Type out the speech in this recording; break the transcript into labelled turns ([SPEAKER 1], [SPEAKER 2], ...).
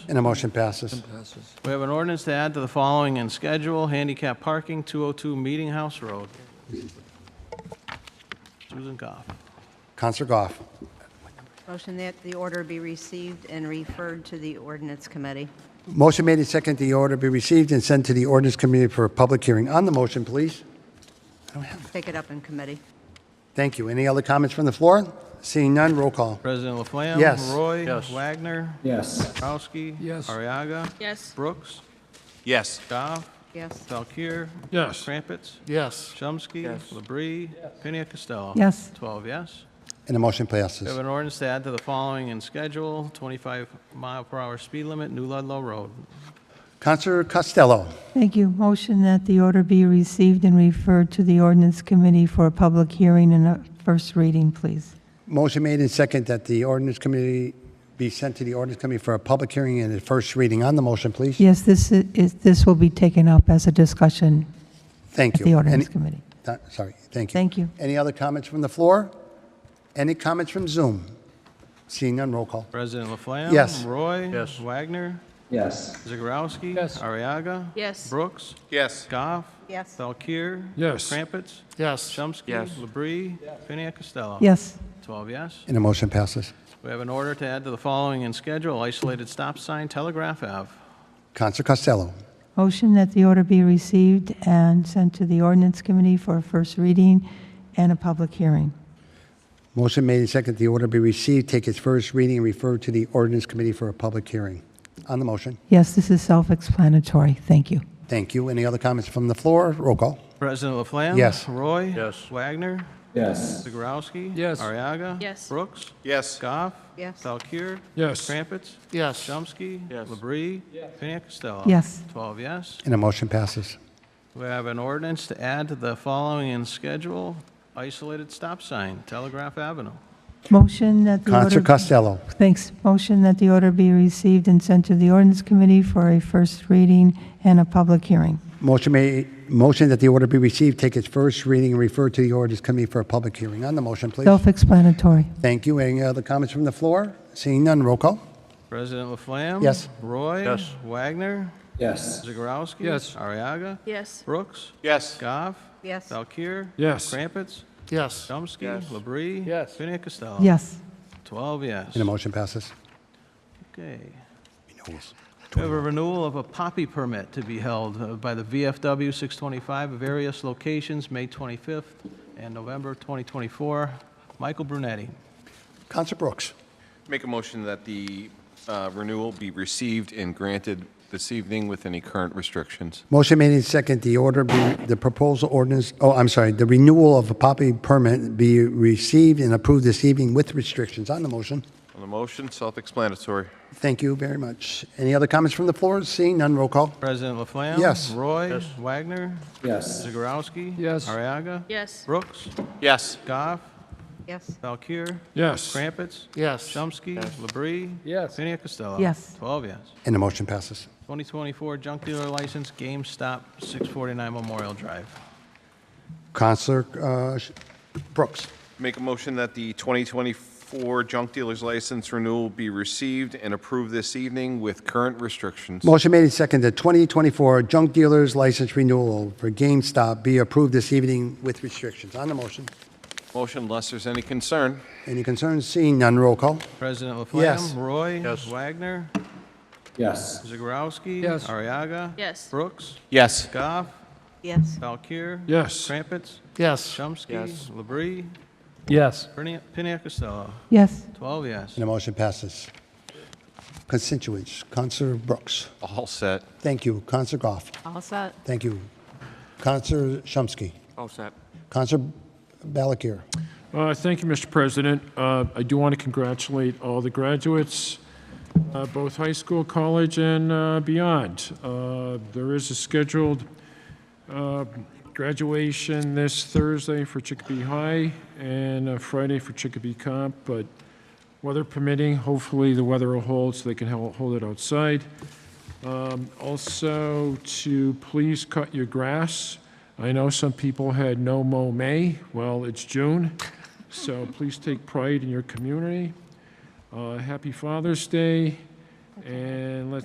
[SPEAKER 1] And the motion passes.
[SPEAKER 2] passes.
[SPEAKER 3] We have an ordinance to add to the following in schedule, handicap parking, 202 Meeting House Road. Susan Goff.
[SPEAKER 1] Counselor Goff.
[SPEAKER 4] Motion that the order be received and referred to the ordinance committee.
[SPEAKER 1] Motion made and second, the order be received and sent to the ordinance committee for a public hearing. On the motion, please.
[SPEAKER 4] Take it up in committee.
[SPEAKER 1] Thank you. Any other comments from the floor? Seeing none, roll call.
[SPEAKER 3] President Laflamme?
[SPEAKER 1] Yes.
[SPEAKER 3] Roy? Wagner?
[SPEAKER 5] yes,
[SPEAKER 3] Dombrowski?
[SPEAKER 2] Yes.
[SPEAKER 3] Ariaga?
[SPEAKER 6] yes,
[SPEAKER 3] Brooks?
[SPEAKER 7] yes,
[SPEAKER 3] Goff?
[SPEAKER 4] Yes.
[SPEAKER 3] Valkir?
[SPEAKER 2] Yes.
[SPEAKER 3] Crumpets?
[SPEAKER 2] Yes.
[SPEAKER 3] Chomsky?
[SPEAKER 2] Yes.
[SPEAKER 3] Labrie? Pena Costello?
[SPEAKER 8] Yes.
[SPEAKER 3] 12 yes.
[SPEAKER 1] And the motion
[SPEAKER 3] We have
[SPEAKER 1] passes.
[SPEAKER 3] an ordinance to add to the following in schedule, 25 mile per hour speed limit, New Ludlow Road.
[SPEAKER 1] Counselor Costello.
[SPEAKER 8] Thank you. Motion that the order be received and referred to the ordinance committee for a public hearing and a first reading, please.
[SPEAKER 1] Motion made and second that the ordinance committee be sent to the ordinance committee for a public hearing and a first reading. On the motion, please.
[SPEAKER 8] Yes, this i- is, this will be taken up as a discussion
[SPEAKER 1] Thank
[SPEAKER 8] at
[SPEAKER 1] you.
[SPEAKER 8] the ordinance
[SPEAKER 1] Any-
[SPEAKER 8] committee.
[SPEAKER 1] Uh, Sorry, thank you.
[SPEAKER 8] Thank you.
[SPEAKER 1] Any other comments from the floor? Any comments from Zoom? Seeing none, roll call.
[SPEAKER 3] President Laflamme?
[SPEAKER 1] Yes.
[SPEAKER 3] Roy?
[SPEAKER 2] Yes.
[SPEAKER 3] Wagner?
[SPEAKER 5] yes.
[SPEAKER 3] Zegarowski?
[SPEAKER 2] Yes.
[SPEAKER 3] Ariaga?
[SPEAKER 6] Yes.
[SPEAKER 3] Brooks?
[SPEAKER 7] yes.
[SPEAKER 3] Goff?
[SPEAKER 4] Yes.
[SPEAKER 3] Valkir?
[SPEAKER 2] Yes.
[SPEAKER 3] Crumpets?
[SPEAKER 2] Yes.
[SPEAKER 3] Chomsky?
[SPEAKER 7] Yes.
[SPEAKER 3] Labrie? Pena Costello?
[SPEAKER 8] Yes,
[SPEAKER 3] 12 yes.
[SPEAKER 1] And the motion passes.
[SPEAKER 3] We have an order to add to the following in schedule, isolated stop sign, Telegraph Ave.
[SPEAKER 1] Counselor Costello.
[SPEAKER 8] motion that the order be received and sent to the ordinance committee for a first reading and a public hearing.
[SPEAKER 1] Motion made and second, the order be received, take its first reading, and refer to the ordinance committee for a public hearing. On the motion,
[SPEAKER 8] Yes, this is self-explanatory. Thank you.
[SPEAKER 1] thank you. Any other comments from the floor? Roll call.
[SPEAKER 3] President Laflamme?
[SPEAKER 1] Yes.
[SPEAKER 3] Roy?
[SPEAKER 2] Yes.
[SPEAKER 3] Wagner?
[SPEAKER 5] Yes.
[SPEAKER 3] Zegarowski?
[SPEAKER 2] Yes.
[SPEAKER 3] Ariaga?
[SPEAKER 6] Yes.
[SPEAKER 3] Brooks?
[SPEAKER 7] Yes.
[SPEAKER 3] Goff?
[SPEAKER 4] Yes.
[SPEAKER 3] Valkir?
[SPEAKER 2] Yes.
[SPEAKER 3] Crumpets?
[SPEAKER 2] Yes.
[SPEAKER 3] Chomsky?
[SPEAKER 7] Yes.
[SPEAKER 3] Labrie? Pena Costello?
[SPEAKER 8] Yes.
[SPEAKER 3] 12 yes.
[SPEAKER 1] And the motion passes.
[SPEAKER 3] We have an ordinance to add to the following in schedule, isolated stop sign, Telegraph Avenue.
[SPEAKER 8] Motion that the order.
[SPEAKER 1] Counselor Costello.
[SPEAKER 8] Thanks. Motion that the order be received and sent to the ordinance committee for a first reading and a public hearing.
[SPEAKER 1] Motion made, motion that the order be received, take its first reading, and refer to the ordinance committee for a public hearing. On the motion, please.
[SPEAKER 8] Self-explanatory.
[SPEAKER 1] Thank you. Any other comments from the floor? Seeing none, roll call.
[SPEAKER 3] President Laflamme?
[SPEAKER 1] Yes.
[SPEAKER 3] Roy?
[SPEAKER 2] Yes.
[SPEAKER 3] Wagner?
[SPEAKER 5] Yes.
[SPEAKER 3] Zegarowski?
[SPEAKER 2] Yes.
[SPEAKER 3] Ariaga?
[SPEAKER 6] yes,
[SPEAKER 3] Brooks?
[SPEAKER 7] Yes.
[SPEAKER 3] Goff?
[SPEAKER 4] Yes.
[SPEAKER 3] Valkir?
[SPEAKER 2] Yes.
[SPEAKER 3] Crumpets?
[SPEAKER 2] Yes.
[SPEAKER 3] Chomsky?
[SPEAKER 7] Yes.
[SPEAKER 3] Labrie?
[SPEAKER 2] Yes.
[SPEAKER 3] Pena Costello?
[SPEAKER 8] Yes.
[SPEAKER 3] 12 yes.
[SPEAKER 1] And the motion passes.
[SPEAKER 3] Okay. We have a renewal of a poppy permit to be held uh, by the VFW 625 at various locations, May 25th and November 2024. Michael Brunetti.
[SPEAKER 1] Counselor Brooks.
[SPEAKER 7] Make a motion that the uh, renewal be received and granted this evening with any current restrictions.
[SPEAKER 1] Motion made and second, the order be, the proposal ordinance, oh, I'm sorry, the renewal of a poppy permit be received and approved this evening with restrictions on the motion.
[SPEAKER 7] On the motion, self-explanatory.
[SPEAKER 1] Thank you very much. Any other comments from the floor? Seeing none, roll call.
[SPEAKER 3] President Laflamme?
[SPEAKER 1] Yes.
[SPEAKER 3] Roy? Wagner?
[SPEAKER 5] Yes.
[SPEAKER 3] Zegarowski?
[SPEAKER 2] Yes.
[SPEAKER 3] Ariaga?
[SPEAKER 6] yes,
[SPEAKER 3] Brooks?
[SPEAKER 7] Yes.
[SPEAKER 3] Goff?
[SPEAKER 4] Yes.
[SPEAKER 3] Valkir?
[SPEAKER 2] Yes.
[SPEAKER 3] Crumpets?
[SPEAKER 2] Yes.
[SPEAKER 3] Chomsky? Labrie?
[SPEAKER 2] Yes.
[SPEAKER 3] Pena Costello?
[SPEAKER 8] Yes.
[SPEAKER 3] 12 yes.
[SPEAKER 1] And the motion passes.
[SPEAKER 3] 2024 junk dealer license, GameStop, 649 Memorial Drive.
[SPEAKER 1] Counselor uh, Sh- Brooks.
[SPEAKER 7] Make a motion that the 2024 junk dealer's license renewal be received and approved this evening with current restrictions.
[SPEAKER 1] Motion made and second, the 2024 junk dealer's license renewal for GameStop be approved this evening with restrictions on the motion.
[SPEAKER 7] Motion, unless there's any concern.
[SPEAKER 1] Any concerns? Seeing none, roll call.
[SPEAKER 3] President Laflamme?
[SPEAKER 1] Yes.
[SPEAKER 3] Roy?
[SPEAKER 2] Yes.
[SPEAKER 3] Wagner?
[SPEAKER 5] Yes.
[SPEAKER 3] Zegarowski?
[SPEAKER 2] Yes.
[SPEAKER 3] Ariaga?
[SPEAKER 6] Yes.
[SPEAKER 3] Brooks?
[SPEAKER 7] Yes.
[SPEAKER 3] Goff?
[SPEAKER 4] Yes.
[SPEAKER 3] Valkir?
[SPEAKER 2] Yes.
[SPEAKER 3] Crumpets?
[SPEAKER 2] Yes.
[SPEAKER 3] Chomsky?
[SPEAKER 7] Yes.
[SPEAKER 3] Labrie?
[SPEAKER 2] Yes.
[SPEAKER 3] Pena- Pena Costello?
[SPEAKER 8] Yes.
[SPEAKER 3] 12 yes.
[SPEAKER 1] And the motion passes. Constituents, Counselor Brooks.
[SPEAKER 7] All set.
[SPEAKER 1] Thank you. Counselor Goff.
[SPEAKER 4] All set.
[SPEAKER 1] Thank you. Counselor Shumsky.
[SPEAKER 9] All set.
[SPEAKER 1] Counselor Balakir.
[SPEAKER 2] Uh, Thank you, Mr. President. Uh, I do want to congratulate all the graduates, uh, both high school, college, and uh, beyond. Uh, There is a scheduled uh, graduation this Thursday for Chicopee High and uh, Friday for Chicopee Comp, but weather permitting, hopefully the weather will hold so they can hel- hold it outside. Um, Also, to please cut your grass. I know some people had no mow May. Well, it's June, so please take pride in your community. Uh, Happy Father's Day. And let's